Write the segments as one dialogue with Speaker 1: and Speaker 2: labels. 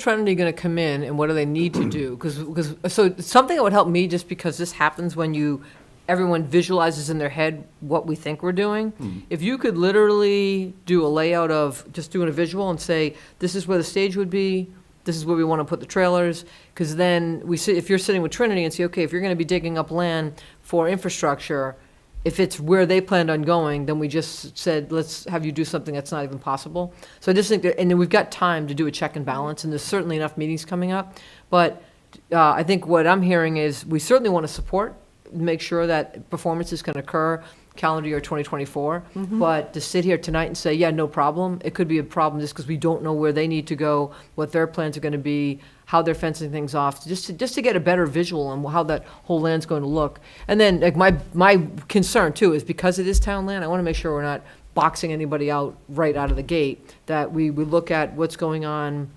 Speaker 1: Trinity going to come in and what do they need to do? Because, so something that would help me, just because this happens when you, everyone visualizes in their head what we think we're doing. If you could literally do a layout of, just doing a visual and say, this is where the stage would be, this is where we want to put the trailers, because then we see, if you're sitting with Trinity and say, okay, if you're going to be digging up land for infrastructure, if it's where they planned on going, then we just said, let's have you do something that's not even possible. So I just think that, and then we've got time to do a check and balance, and there's certainly enough meetings coming up. But uh, I think what I'm hearing is, we certainly want to support, make sure that performances can occur calendar year 2024. But to sit here tonight and say, yeah, no problem, it could be a problem just because we don't know where they need to go, what their plans are going to be, how they're fencing things off, just to, just to get a better visual on how that whole land's going to look. And then, like, my, my concern too is because it is town land, I want to make sure we're not boxing anybody out right out of the gate, that we, we look at what's going on,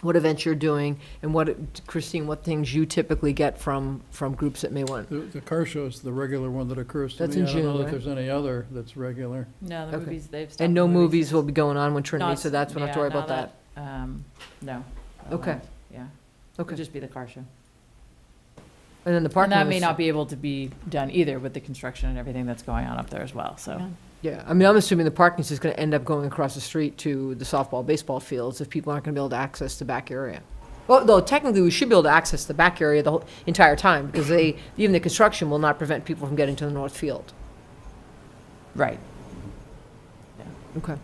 Speaker 1: what events you're doing, and what, Christine, what things you typically get from, from groups that may want.
Speaker 2: The, the car show's the regular one that occurs to me.
Speaker 1: That's in
Speaker 2: I don't
Speaker 1: June,
Speaker 2: know
Speaker 1: right?
Speaker 2: if there's any other that's regular.
Speaker 3: No, the
Speaker 1: Okay.
Speaker 3: movies, they've stopped.
Speaker 1: And no
Speaker 3: the
Speaker 1: movies will be going on when Trinity,
Speaker 3: Not-
Speaker 1: so that's, we don't have to
Speaker 3: yeah,
Speaker 1: worry about
Speaker 3: now
Speaker 1: that.
Speaker 3: Um, no. that
Speaker 1: Okay.
Speaker 3: won't, Yeah, it'll
Speaker 1: Okay,
Speaker 3: just be the car show.
Speaker 1: and then the
Speaker 3: And
Speaker 1: parking.
Speaker 3: that may
Speaker 1: is-
Speaker 3: not be able to be done either with the construction and everything that's going on up there as well, so.
Speaker 1: Yeah, I mean, I'm assuming the parking is just gonna end up going across the street to the softball, baseball fields if people aren't gonna be able to access the back area. Well, though technically, we should be able to access the back area the whole entire time, because they, even the construction will not prevent people from getting to the north field.
Speaker 3: Right.
Speaker 1: Okay.
Speaker 2: It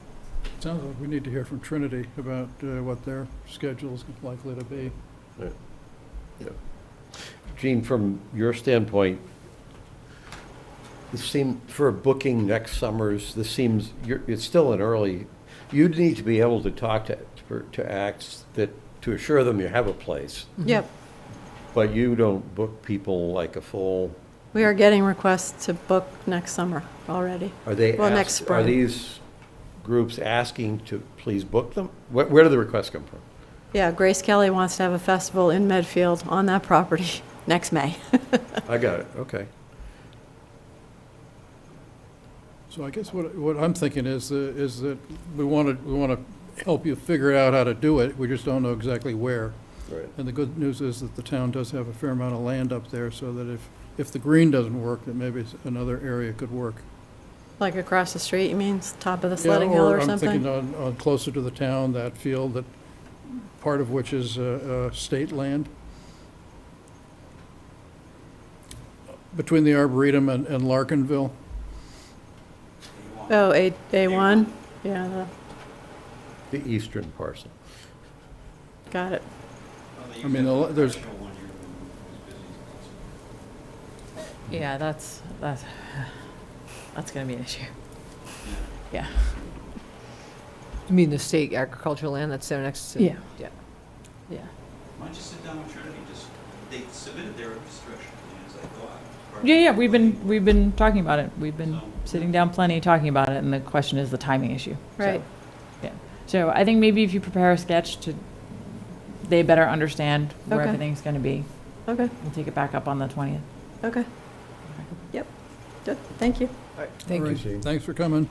Speaker 2: sounds like we need to hear from Trinity about uh, what their schedule's likely to be.
Speaker 4: Gene, from your standpoint, this seem, for booking next summers, this seems, you're, it's still an early, you'd need to be able to talk to, for- to acts that, to assure them you have a place,
Speaker 5: Yep,
Speaker 4: but you don't book people like a full,
Speaker 5: we are getting requests to book next summer already.
Speaker 4: are they
Speaker 5: Well, next
Speaker 4: ask- are
Speaker 5: spring.
Speaker 4: these groups asking to please book them? Where, where do the requests come from?
Speaker 5: Yeah, Grace Kelly wants to have a festival in Medfield on that property next May.
Speaker 4: I got it, okay.
Speaker 2: So I guess what, what I'm thinking is, uh, is that we want to, we want to help you figure out how to do it, we just don't know exactly where.
Speaker 4: Right.
Speaker 2: And the good news is that the town does have a fair amount of land up there, so that if, if the green doesn't work, then maybe s- another area could work.
Speaker 5: Like across the street, you mean, s- top of the
Speaker 2: Yeah,
Speaker 5: sledding hill or
Speaker 2: I'm thinking
Speaker 5: something?
Speaker 2: on, on closer to the town, that field, that, part of which is uh, uh, state land. Between the Arboretum and and Larkinville,
Speaker 5: Oh, A, A1, yeah, the-
Speaker 4: The eastern parcel.
Speaker 5: got it.
Speaker 2: I mean, the- there's,
Speaker 3: Yeah, that's, that's, that's gonna be an issue.
Speaker 1: You mean the state agricultural land that's there next to?
Speaker 3: Yeah.
Speaker 1: Yeah.
Speaker 3: Yeah.
Speaker 6: Why don't you sit down with Trinity, just, they submitted their infrastructure plan as I thought. correct?
Speaker 3: Yeah, yeah, we've been, we've been talking about it. We've been
Speaker 6: So,
Speaker 3: sitting down plenty, talking about it, and the question is the timing issue. So-
Speaker 5: Right.
Speaker 3: Yeah, so I think maybe if you prepare a sketch to, they better understand where
Speaker 5: Okay.
Speaker 3: everything's gonna be.
Speaker 5: Okay,
Speaker 3: We'll take it back up on the twentieth.
Speaker 5: okay. Yep, good, thank you.
Speaker 1: Thank you.
Speaker 2: All right, Thanks for coming.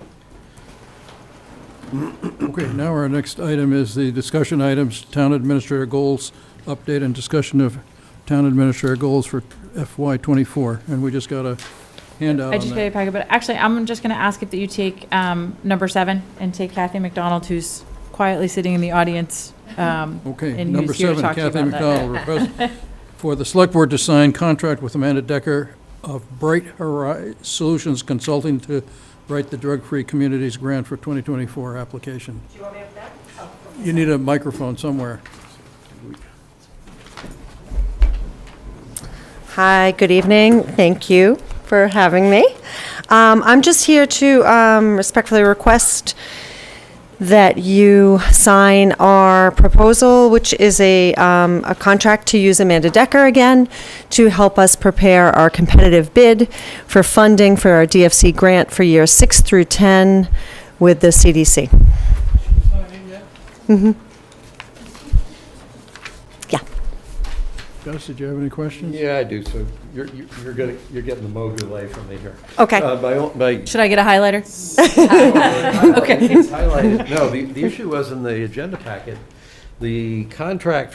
Speaker 2: Okay, now our next item is the discussion items, town administrator goals, update and discussion of town administrator goals for FY '24. And we just got a handout
Speaker 3: I
Speaker 2: on
Speaker 3: just got a
Speaker 2: that.
Speaker 3: packet, but actually, I'm just gonna ask if that you take, um, number seven and take Kathy McDonald, who's quietly sitting in the audience. Um,
Speaker 2: Okay,
Speaker 3: and
Speaker 2: number
Speaker 3: who's here to
Speaker 2: seven,
Speaker 3: talk to you
Speaker 2: Kathy
Speaker 3: about that.
Speaker 2: McDonald, request for the select board to sign contract with Amanda Decker of Bright Horizon Solutions Consulting to write the drug-free communities grant for 2024 application. Do you want me to that? Oh, You need a microphone somewhere.
Speaker 7: Hi, good evening. Thank you for having me. Um, I'm just here to um, respectfully request that you sign our proposal, which is a, um, a contract to use Amanda Decker again to help us prepare our competitive bid for funding for our DFC grant for years six through 10 with the CDC.
Speaker 2: Gus, did you have any questions?
Speaker 4: Yeah, I do, so you're, you're you're gonna, you're getting the Mogu delay from me here.
Speaker 7: Okay.
Speaker 4: Uh, my, own- my
Speaker 3: Should I get a highlighter?
Speaker 4: Okay. No, the, the issue was in the agenda packet The contract